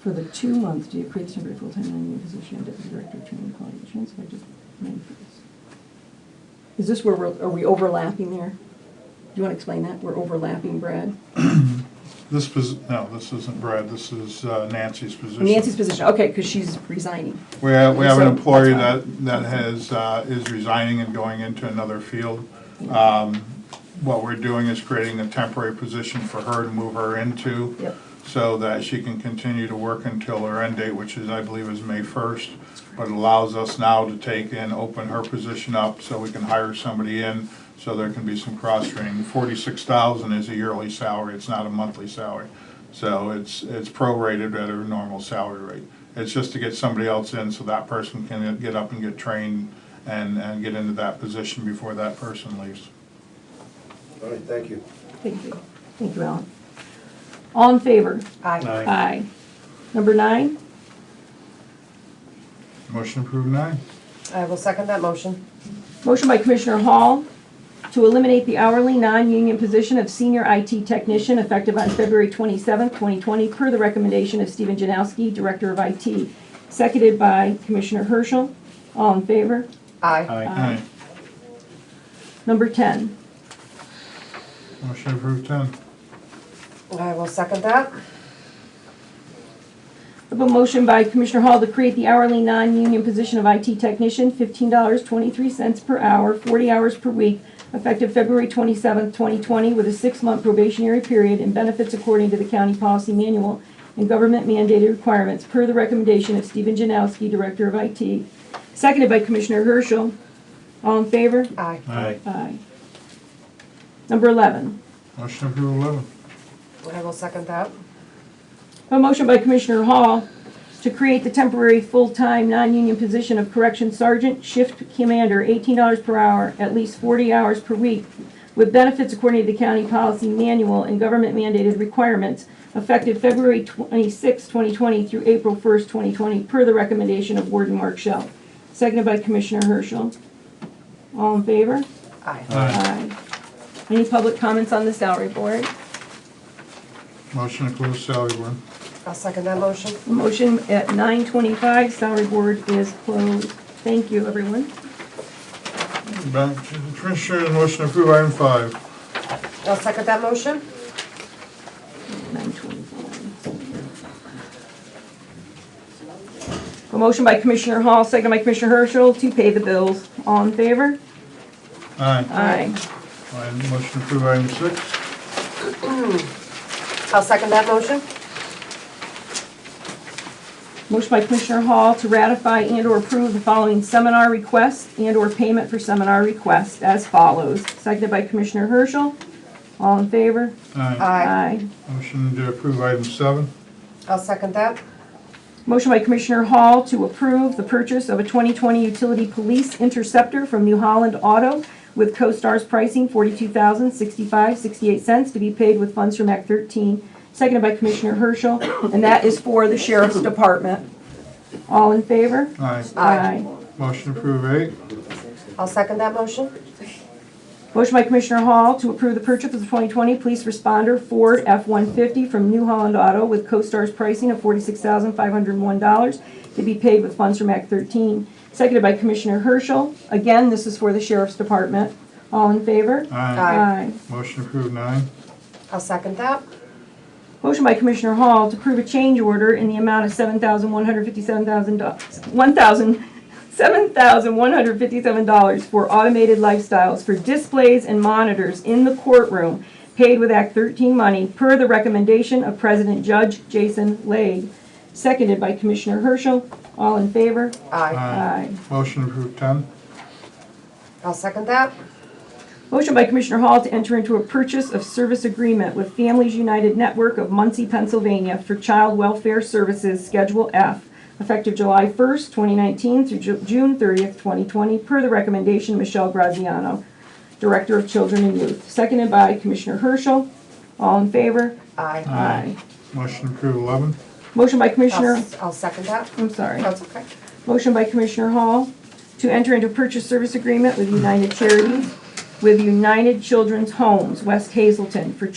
for the two-month, do you create the temporary full-time non-union position and deputy director of training and quality assurance, if I just made this? Is this where we're, are we overlapping there? Do you want to explain that? We're overlapping, Brad? This was, no, this isn't Brad, this is uh, Nancy's position. Nancy's position, okay, because she's resigning. We have, we have an So, that's employee fine. that, that has, uh, is resigning and going into another field. Um, What we're doing is creating a temporary position for her to move her into. Yep. So that she can continue to work until her end date, which is, I believe, is May first. But it allows us now to take and open her position up so we can hire somebody in, so there can be some cross-training. Forty-six thousand is a yearly salary, it's not a monthly salary. So it's, it's prorated at her normal salary rate. It's just to get somebody else in so that person can get up and get trained and, and get into that position before that person leaves. All right, thank you. Thank you. Thank you, Alan. All in favor? Aye. Aye. Number nine? Motion approved nine. I will second that motion. Motion by Commissioner Hall to eliminate the hourly non-union position of senior IT technician effective on February 27, 2020, per the recommendation of Stephen Janowski, Director of IT, seconded by Commissioner Herschel. All in favor? Aye. Aye. Number 10. Motion approved ten. I will second that. I have a motion by Commissioner Hall to create the hourly non-union position of IT technician, $15.23 per hour, 40 hours per week, effective February 27, 2020, with a six-month probationary period and benefits according to the county policy manual and government mandated requirements, per the recommendation of Stephen Janowski, Director of IT, seconded by Commissioner Herschel. All in favor? Aye. Aye. Aye. Number 11. Motion approved eleven. I will second that. A motion by Commissioner Hall to create the temporary full-time non-union position of correction sergeant, shift commander, eighteen dollars per hour, at least forty hours per week, with benefits according to the county policy manual and government mandated requirements, effective February 26, twenty twenty through April first, twenty twenty, per the recommendation of Warden Mark Shell. Seconded by Commissioner Herschel. All in favor? Aye. Aye. Aye. Any public comments on the salary board? Motion to close salary board. I'll second that motion. Motion at 9:25, salary board is closed. Thank you, everyone. Back to the Commissioner, motion to approve item five. I'll second that motion. 9:25. A motion by Commissioner Hall, second by Commissioner Herschel to pay the bills. All in favor? Aye. Aye. Item- Motion to approve item six. I'll second that motion. Motion by Commissioner Hall to ratify and/or approve the following seminar request and/or payment for seminar request as follows. Seconded by Commissioner Herschel. All in favor? Aye. Aye. Motion to approve item seven. I'll second that. Motion by Commissioner Hall to approve the purchase of a 2020 utility police interceptor from New Holland Auto with CoStar's pricing $42,065.68 to be paid with funds from Act 13, seconded by Commissioner Herschel, and that is for the Sheriff's Department. All in favor? Aye. Aye. Motion to approve eight. I'll second that motion. Motion by Commissioner Hall to approve the purchase of the 2020 Police Responder Ford F-150 from New Holland Auto with CoStar's pricing of $46,501 to be paid with funds from Act 13, seconded by Commissioner Herschel. Again, this is for the Sheriff's Department. All in favor? Aye. Aye. Motion to approve nine. I'll second that. Motion by Commissioner Hall to approve a change order in the amount of seven thousand one hundred fifty-seven thousand dollars, one thousand, seven thousand one hundred fifty-seven dollars for automated lifestyles for displays and monitors in the courtroom, paid with Act thirteen money, per the recommendation of President Judge Jason Lade, seconded by Commissioner Herschel. All in favor? Aye. Aye. Motion to approve ten. I'll second that. Motion by Commissioner Hall to enter into a purchase of service agreement with Families United Network of Muncie, Pennsylvania for Child Welfare Services Schedule F, effective July 1st, 2019 through Ju- June 30th, 2020, per the recommendation of Michelle Graziano, Director of Children and Youth, seconded by Commissioner Herschel. All in favor? Aye. Aye. Motion to approve eleven. Motion by Commissioner, I'll I'll second that. I'm sorry. That's okay. Motion by Commissioner Hall to enter into purchase service agreement with United Charities with United Children's Homes, West Hazelton, for